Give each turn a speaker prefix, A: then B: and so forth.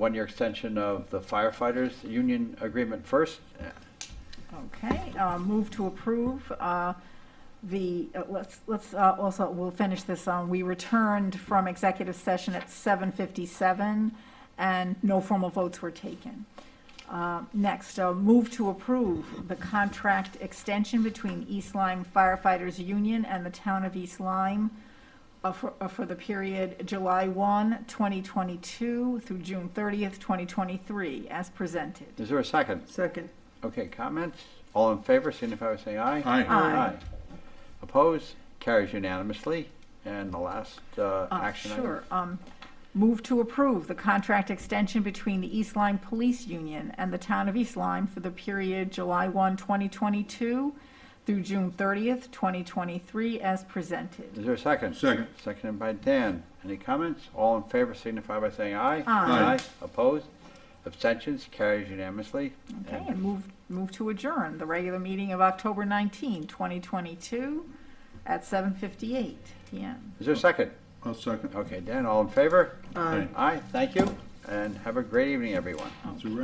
A: one-year extension of the firefighters' union agreement first.
B: Okay, uh, move to approve uh, the, uh, let's, let's uh, also, we'll finish this on, we returned from executive session at 7:57, and no formal votes were taken. Uh, Next, uh, move to approve the contract extension between East Lyme Firefighters Union and the Town of East Lyme uh, for uh, for the period July 1, 2022 through June 30th, 2023, as presented.
A: Is there a second?
C: Second.
A: Okay, comments? All in favor, signify by saying aye.
D: Aye.
B: Aye.
A: Opposed? Carries unanimously. And the last uh,
B: Uh,
A: action item.
B: Sure. Um, Move to approve the contract extension between the East Lyme Police Union and the Town of East Lyme for the period July 1, 2022 through June 30th, 2023, as presented.
A: Is there a second?
D: Second.
A: Seconded by Dan. Any comments? All in favor signify by saying aye.
B: Aye.
D: Aye.
A: Opposed? Abstentions? Carries unanimously.
B: Okay,
A: And
B: and move, move to adjourn the regular meeting of October 19, 2022 at 7:58 PM.
A: Is there a second?
D: I'll second.
A: Okay, Dan, all in favor?
D: Aye.
A: Aye, thank you, and have a great evening, everyone.
D: That's a wrap.